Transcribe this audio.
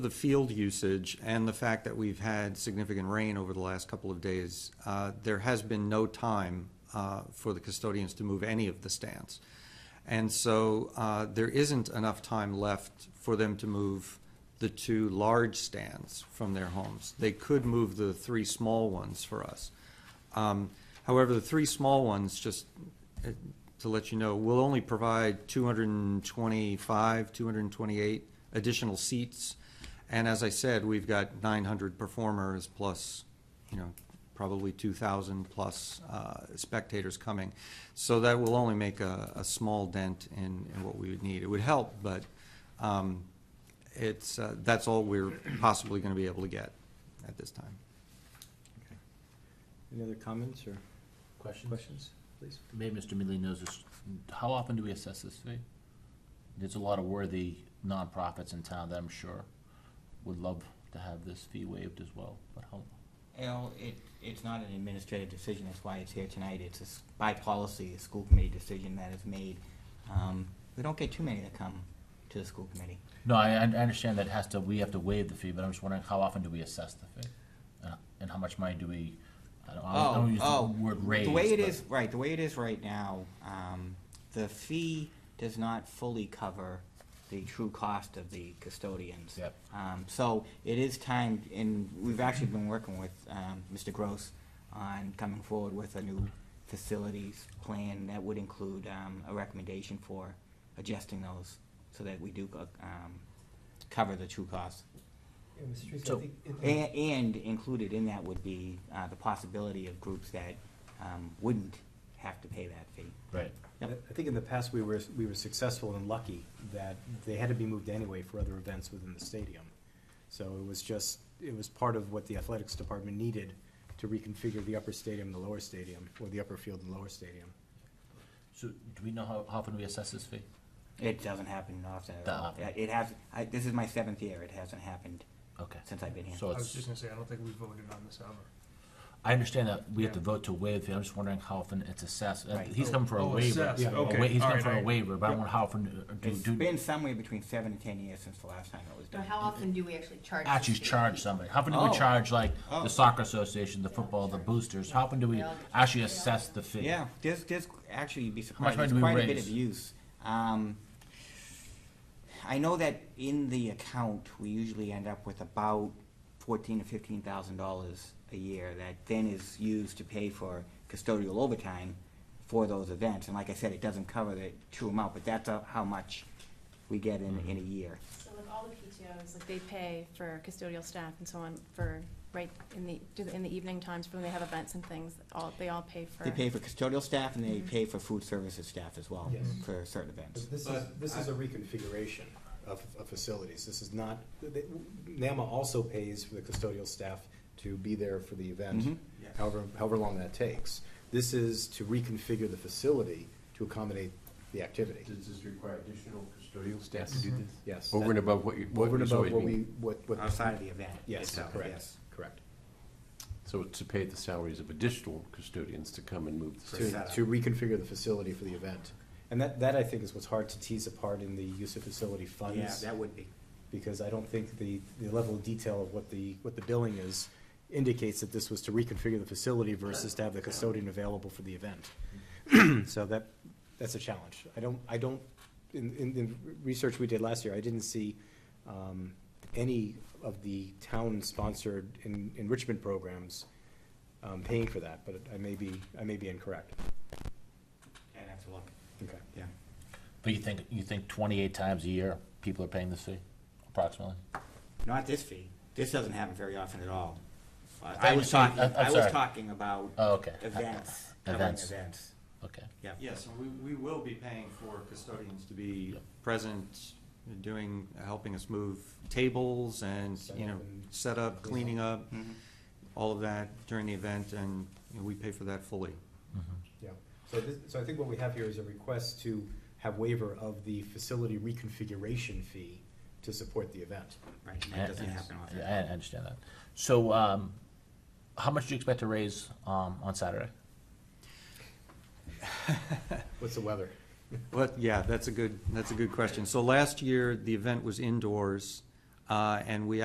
the field usage and the fact that we've had significant rain over the last couple of days, uh, there has been no time uh, for the custodians to move any of the stands. And so uh, there isn't enough time left for them to move the two large stands from their homes. They could move the three small ones for us. Um, However, the three small ones, just uh, to let you know, will only provide 225, 228 additional seats. And as I said, we've got 900 performers plus, you know, probably 2,000 plus uh, spectators coming. So that will only make a, a small dent in, in what we would need. It would help, but um, it's, uh, that's all we're possibly going to be able to get at this time. Okay. Any other comments or Questions? questions, please? Maybe Mr. Midley knows this. How often do we assess this fee? There's a lot of worthy nonprofits in town that I'm sure would love to have this fee waived as well, but how, Al, it, it's not an administrative decision, that's why it's here tonight. It's a s by policy, a school committee decision that is made. Um, we don't get too many that come to the school committee. no, I, I understand that has to, we have to waive the fee, but I'm just wondering how often do we assess the fee? Uh, And how much money do we, I don't, I don't- I don't use Oh, the word raise. The way it but- is, right, the way it is right now, um, the fee does not fully cover the true cost of the custodians. Yep. Um, so it is time, and we've actually been working with, um, Mr. Gross on coming forward with a new facilities plan that would include, um, a recommendation for adjusting those so that we do, uh, um, cover the true cost. Yeah, Mr. Treese, So- I think, it- And, and included in that would be, uh, the possibility of groups that, um, wouldn't have to pay that fee. Right, Yep. I think in the past, we were, we were successful and lucky that they had to be moved anyway for other events within the stadium. So it was just, it was part of what the athletics department needed to reconfigure the upper stadium and the lower stadium, or the upper field and lower stadium. so do we know how, how often we assess this fee? It doesn't happen often at That all. often. It has, I, this is my seventh year, it hasn't happened Okay, since I've been here. so I was just it's, gonna say, I don't think we voted on this ever. I understand that we have to Yeah. vote to waive the fee, I'm just wondering how often it's assessed, Uh, Right. he's coming for a Oh, waiver. assessed. Yeah. a wa- Okay, he's all going right, for a I- waiver, but I don't know how often, uh, It's do, do, been somewhere between seven and ten years since the last time it was But done. how often do we actually charge? these actually people? charge somebody? How often do we Oh. charge, like, Oh. the soccer association, the football, the boosters? How often do we They all get- actually assess the fee? Yeah, there's, there's, actually, you'd be much surprised, money there's do we quite a bit raise? of use. Um, I know that in the account, we usually end up with about fourteen to fifteen thousand dollars a year that then is used to pay for custodial overtime for those events. And like I said, it doesn't cover the true amount, but that's uh, how much we get in, in a Mm-hmm. year. So like all the PTOs, like they pay for custodial staff and so on for, right, in the, do the- in the evening times when they have events and things, all, they all pay for. They pay for custodial staff and they pay for food services staff as well Yes. for certain events. This is, But this is a reconfiguration of, of facilities. This is not, the- NAMA also pays for the custodial staff to be there for the Mhm. Mm-hmm. event, however, however long that takes. This is to reconfigure the facility to accommodate the activity. Does this require additional custodial staff to do this? Yes. Over and above what you, what Mm-hmm. Over and is above always what we, being- what, what. Outside of the event. Yes, itself, correct, yes. correct. So it's to pay the salaries of additional custodians to come and move the To, station. setup. to reconfigure the facility for the event. And that, that I think is what's hard to tease apart in the use of facility funds. Yeah, that would be. because I don't think the, the level of detail of what the, what the billing is indicates that this was to reconfigure the facility versus to have the custodian available for the event. So that, that's a challenge. I don't, I don't, in, in the research we did last year, I didn't see um, any of the town-sponsored en- enrichment programs um, paying for that, but I may be, I may be incorrect. I'd have to look, Okay. yeah. But you think, you think twenty-eight times a year, people are paying this fee, approximately? Not this fee. This doesn't happen very often at all. Uh, I I was understand. talking, I- I'm I was sorry. talking about Oh, okay. events, covering Events. events. Okay. Yeah. Yes, and we, we will be paying for custodians to be present, doing, helping us move tables and, you know, set up, cleaning up, Mm-hmm. Mhm. all of that during the event, and you know, we pay for that fully. Yeah, so this, so I think what we have here is a request to have waiver of the facility reconfiguration fee to support the event. Right, and I- that doesn't I- happen often. I, I understand that. So, um, how much do you expect to raise, um, on Saturday? What's the weather? But, yeah, that's a good, that's a good question. So last year, the event was indoors. Um, Uh, And we